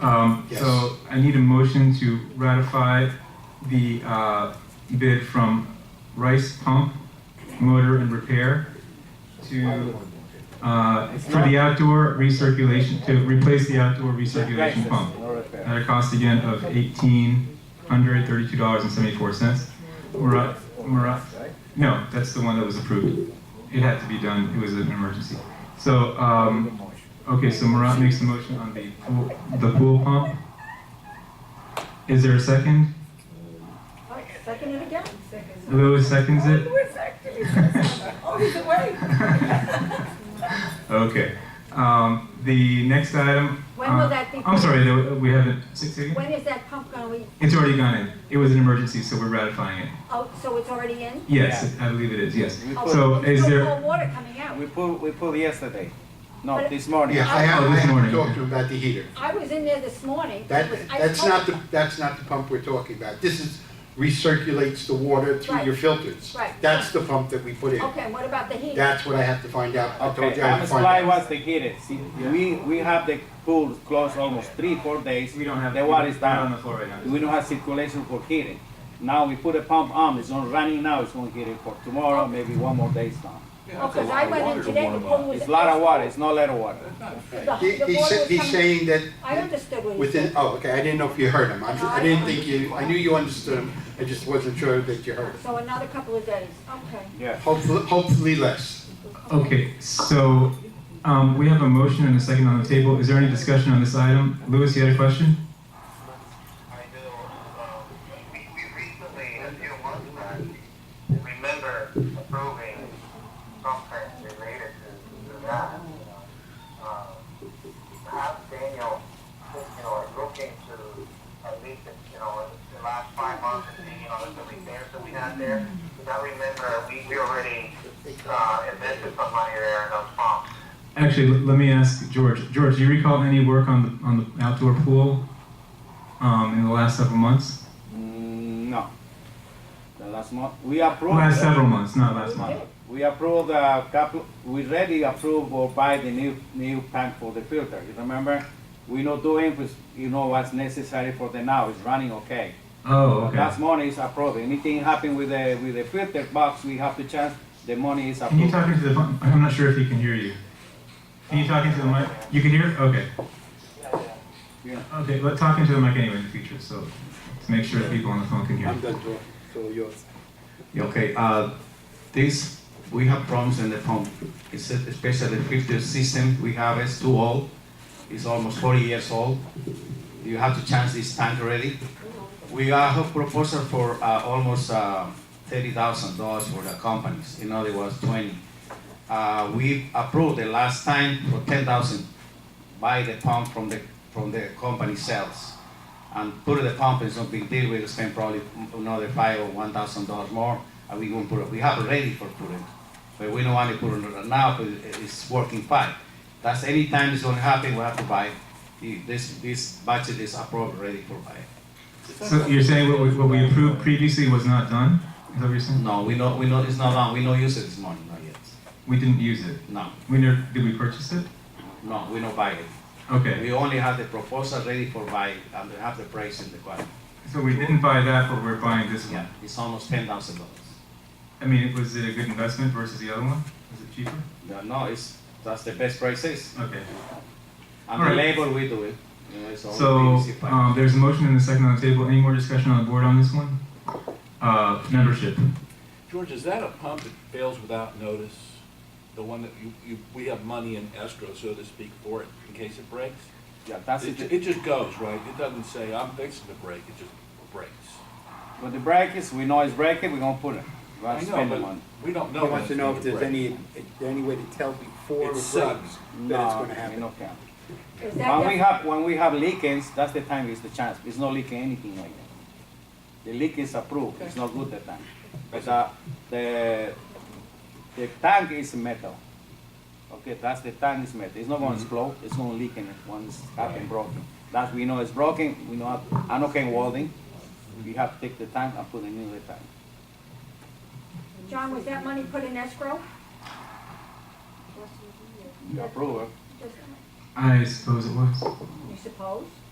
Um, Yes. So I need a motion to ratify the uh, bid from Rice Pump Motor and Repair to, uh, for the outdoor recirculation, to replace the outdoor recirculation pump. At a cost again of eighteen hundred thirty-two dollars and seventy-four cents. Murat, Murat, no, that's the one that was approved. It had to be done, it was an emergency. So, um, okay, so Murat makes the motion on the pool, the pool pump. Is there a second? Oh, Second it again. Lou seconds it? We're second. Oh, he's awake. Okay, um, the next item. When will uh, that be- I'm sorry, there- we haven't, six again? When is that pump gonna be, It's already gone in, it was an emergency, so we're ratifying it. oh, so it's already in? Yes, I believe it is, yes. We Oh, put, So there's is no there- more water coming out. we put, we put yesterday. No, But- this morning. Yeah, I have, Oh, I this have morning. talked to him about the heater. I was in there this morning. It That, was ice that's not cold. the, that's not the pump we're talking about. This is, recirculates the water through Right. your filters. Right. That's the pump that we put in. Okay, and what about the heater? That's what I have to find out. I told Okay, you I I'm would find supply out. was the heated. See, we, we have the pool closed almost three, four days. We don't have. The water is not On the down. floor right now. We don't have circulation for heating. Now we put a pump on, it's on running now, it's gonna heat it for tomorrow, maybe one more day's time. Because Oh, I went in today, the pool was. It's a lot of ice water, it's not little water. cold. He, The- the he's, water sa- was he's coming- saying that I understood what he within, said. oh, okay, I didn't know if you heard him. I'm- I didn't think you, I knew you understood him. I just wasn't sure that you heard him. So another couple of days, okay. Yeah. Hopefully, hopefully less. Okay, so, um, we have a motion and a second on the table. Is there any discussion on this item? Louis, you had a question? I know, um, we we recently, a few months back, remember approving something related to, to that. Um, Perhaps Daniel, you know, is looking to, at least, you know, in the last five months, and see, you know, the repairs that we had there. Because I remember, we, we already, uh, invested some money there in those pumps. Actually, l- let me ask George. George, do you recall any work on the, on the outdoor pool, um, in the last several months? Mm, no. The last month, we approved. Last several months, not last month. We approved a couple, we already approved or buy the new, new tank for the filter, you remember? We not doing, was- you know, what's necessary for the now, it's running okay. Oh, okay. That money is approved, anything happen with the, with the filter box, we have to change, the money is Can you approved. talk into the, phone? I'm not sure if he can hear you. Can you talk into the mic? You can hear? Okay. Yeah. Okay, but talk into the mic anyway in the future, so, to make sure that people on the phone can hear. I'm done talking, so yours. Okay, uh, this, we have problems in the pump, it's a- especially the filter system we have is too old, it's almost forty years old. You have to change this tank already. We are- have proposal for, uh, almost, uh, thirty thousand dollars for the companies, in other words, twenty. Uh, we approved the last time for ten thousand, buy the pump from the, from the company sales. And put the pump is no big deal, we'll spend probably another five or one thousand dollars more, and we won't put it, we have it ready for putting. But we don't want to put it on now, because it- it's working fine. That's anytime it's gonna happen, we have to buy, The- this, this budget is approved, ready for buy. So you're saying what we, what we approved previously was not done? Is that what you're saying? No, we not, we not, it's not on, we not use it this morning, not yet, We didn't use it. no, We never, did we purchase it? no, we not buy it. Okay, We only have the proposal ready for buy, and we have the price in the quote. so we didn't buy that, but we're buying this Yeah, one. it's almost ten thousand dollars. I mean, was it a good investment versus the other one? Was it cheaper? No, no, it's, that's the best price is. Okay, And All the right. label we do it, you know, it's all so, PVC pipe. um, there's a motion and a second on the table. Any more discussion on the board on this one? Uh, membership. George, is that a pump that fails without notice? The one that you, you, we have money in escrow, so to speak, for it in case it breaks? Yeah, that's It, it. ju- it just goes, right? It doesn't say, I'm fixing to break, it just breaks. But the break is, we know it's breaking, we gonna put it. We have I to know, spend the but money. we don't know. I when want to it's know gonna if there's break. any, if there any way to tell before it It breaks that sucks. it's No, gonna we happen. not can. Is that, When we the- have, when we have leakings, that's the time is the chance, it's not leaking anything like that. The leak is approved, it's not good that time. But, uh, the, the tank is metal. Okay, that's the tank is metal, it's not gonna explode, it's gonna leak in it once it's up and broken. That we know it's broken, we know, how- I know can welding, we have to take the tank and put a new tank. John, was that money put in escrow? You approve it. Just- I suppose it was. You suppose?